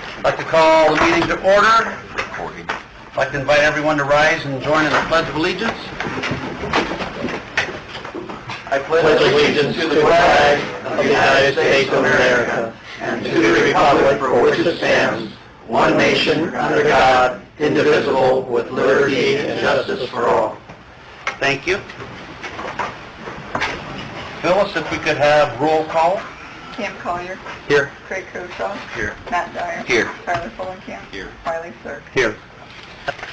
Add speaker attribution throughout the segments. Speaker 1: I'd like to call the meeting to order. I'd like to invite everyone to rise and join in the Pledge of Allegiance. I
Speaker 2: pledge allegiance to the flag of the United States of America and to the republic for which it stands, one nation, under God, indivisible, with liberty and justice for all.
Speaker 1: Thank you. Phyllis, if we could have roll call?
Speaker 3: Cam Collier,
Speaker 1: Here.
Speaker 3: Craig Koshaw,
Speaker 1: Here.
Speaker 3: Matt Dyer.
Speaker 1: Here.
Speaker 3: Tyler Fulenkamp.
Speaker 1: Here.
Speaker 3: Wiley Sirk.
Speaker 1: Here.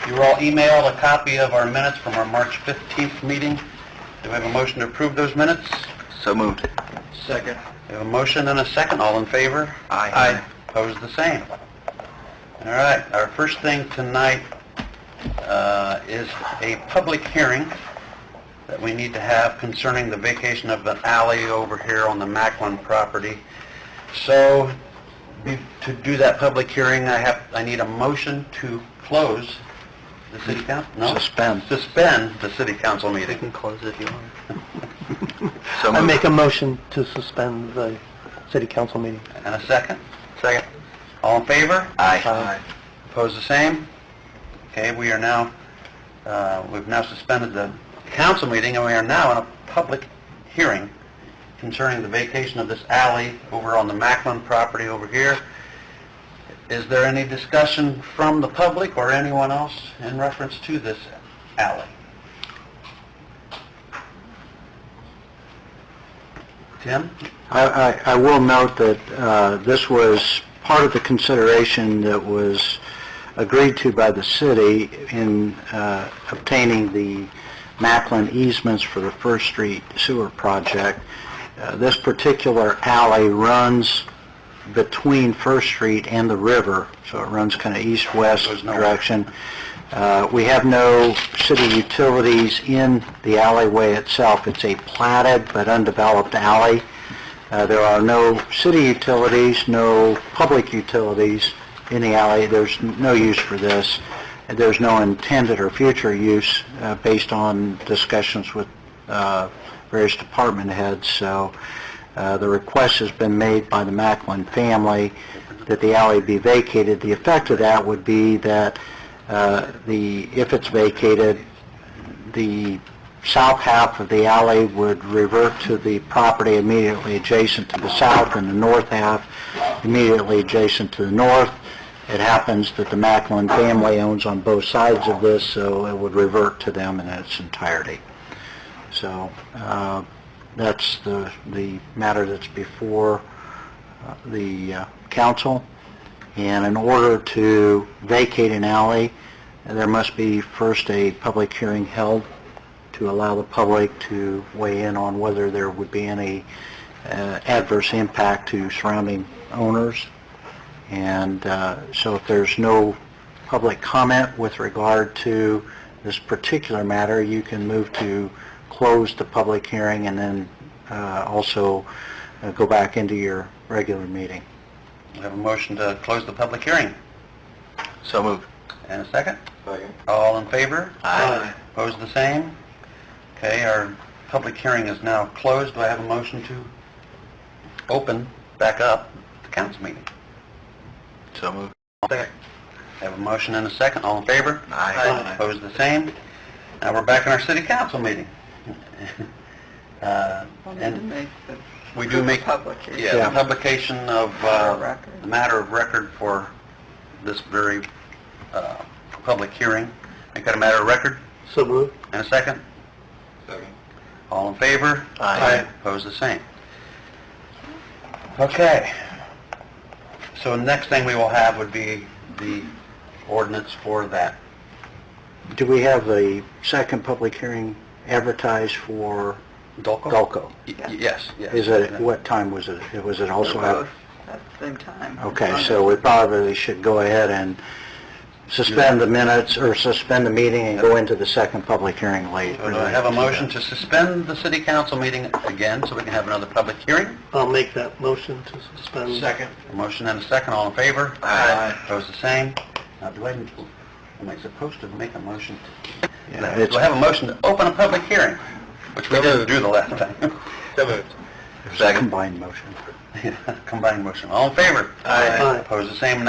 Speaker 1: You were all emailed a copy of our minutes from our March 15th meeting. Do we have a motion to approve those minutes? So moved.
Speaker 2: Second.
Speaker 1: We have a motion and a second. All in favor?
Speaker 2: Aye.
Speaker 1: Opposed, the same. All right, our first thing tonight uh, is a public hearing that we need to have concerning the vacation of an alley over here on the Macklin property. So be- to do that public hearing, I have, I need a motion to close the city council, no?
Speaker 2: Suspend.
Speaker 1: Suspend the city council meeting.
Speaker 2: close if you want.
Speaker 1: So
Speaker 2: I make a motion to suspend the city council meeting.
Speaker 1: And a second? Second. All in favor?
Speaker 2: Aye.
Speaker 1: Opposed, the same? Okay, we are now, uh, we've now suspended the council meeting, and we are now in a public hearing concerning the vacation of this alley over on the Macklin property over here. Is there any discussion from the public or anyone else in reference to this alley? Tim?
Speaker 4: I, I- I will note that uh, this was part of the consideration that was agreed to by the city in uh, obtaining the Macklin easements for the First Street Sewer Project. Uh, This particular alley runs between First Street and the river, so it runs kind of east-west
Speaker 1: Goes nowhere.
Speaker 4: direction. Uh, We have no city utilities in the alleyway itself. It's a platted but undeveloped alley. Uh, There are no city utilities, no public utilities in the alley. There's no use for this. There's no intended or future use uh, based on discussions with uh, various department heads. So uh, the request has been made by the Macklin family that the alley be vacated. The effect of that would be that uh, the, if it's vacated, the south half of the alley would revert to the property immediately adjacent to the south, and the north half immediately adjacent to the north. It happens that the Macklin family owns on both sides of this, so it would revert to them in its entirety. So uh, that's the, the matter that's before uh, the uh, council. And in order to vacate an alley, there must be first a public hearing held to allow the public to weigh in on whether there would be any uh, adverse impact to surrounding owners. And uh, so if there's no public comment with regard to this particular matter, you can move to close the public hearing and then uh, also uh, go back into your regular meeting.
Speaker 1: We have a motion to close the public hearing.
Speaker 2: So moved.
Speaker 1: And a second?
Speaker 2: Second.
Speaker 1: All in favor?
Speaker 2: Aye.
Speaker 1: Opposed, the same? Okay, our public hearing is now closed. Do I have a motion to open back up the council meeting?
Speaker 2: So moved.
Speaker 1: Second. Have a motion and a second. All in favor?
Speaker 2: Aye. Aye.
Speaker 1: Opposed, the same? Now we're back in our city council meeting. Uh,
Speaker 3: Well, need to
Speaker 1: And
Speaker 3: make the
Speaker 1: we do make,
Speaker 3: public here.
Speaker 1: yeah, the publication of, uh,
Speaker 3: Record.
Speaker 1: the matter of record for this very, uh, public hearing. Make that a matter of record?
Speaker 2: So moved.
Speaker 1: And a second?
Speaker 2: Second.
Speaker 1: All in favor?
Speaker 2: Aye.
Speaker 1: Opposed, the same. Okay. So next thing we will have would be the ordinance for that.
Speaker 4: Do we have a second public hearing advertised for
Speaker 1: Dolco?
Speaker 4: Gulco?
Speaker 1: Yes, yes.
Speaker 4: Is it, what time was it? Was it also
Speaker 1: Uh,
Speaker 4: out?
Speaker 3: At the same time.
Speaker 4: Okay, so we probably should go ahead and suspend the minutes, or suspend the meeting and go into the second public hearing later.
Speaker 1: So Uh, do I have a motion to suspend the city council meeting again, so we can have another public hearing?
Speaker 2: I'll make that motion to suspend. Second.
Speaker 1: A motion and a second, all in favor?
Speaker 2: Aye.
Speaker 1: Opposed, the same. Now, do I, am I supposed to make a motion? to-
Speaker 4: Yeah,
Speaker 1: Do I have a motion to open a public hearing? Which we didn't do the last time.
Speaker 2: So moved.
Speaker 4: It's a combined motion.
Speaker 1: Combined motion. All in favor?
Speaker 2: Aye. Aye.
Speaker 1: Opposed, the same.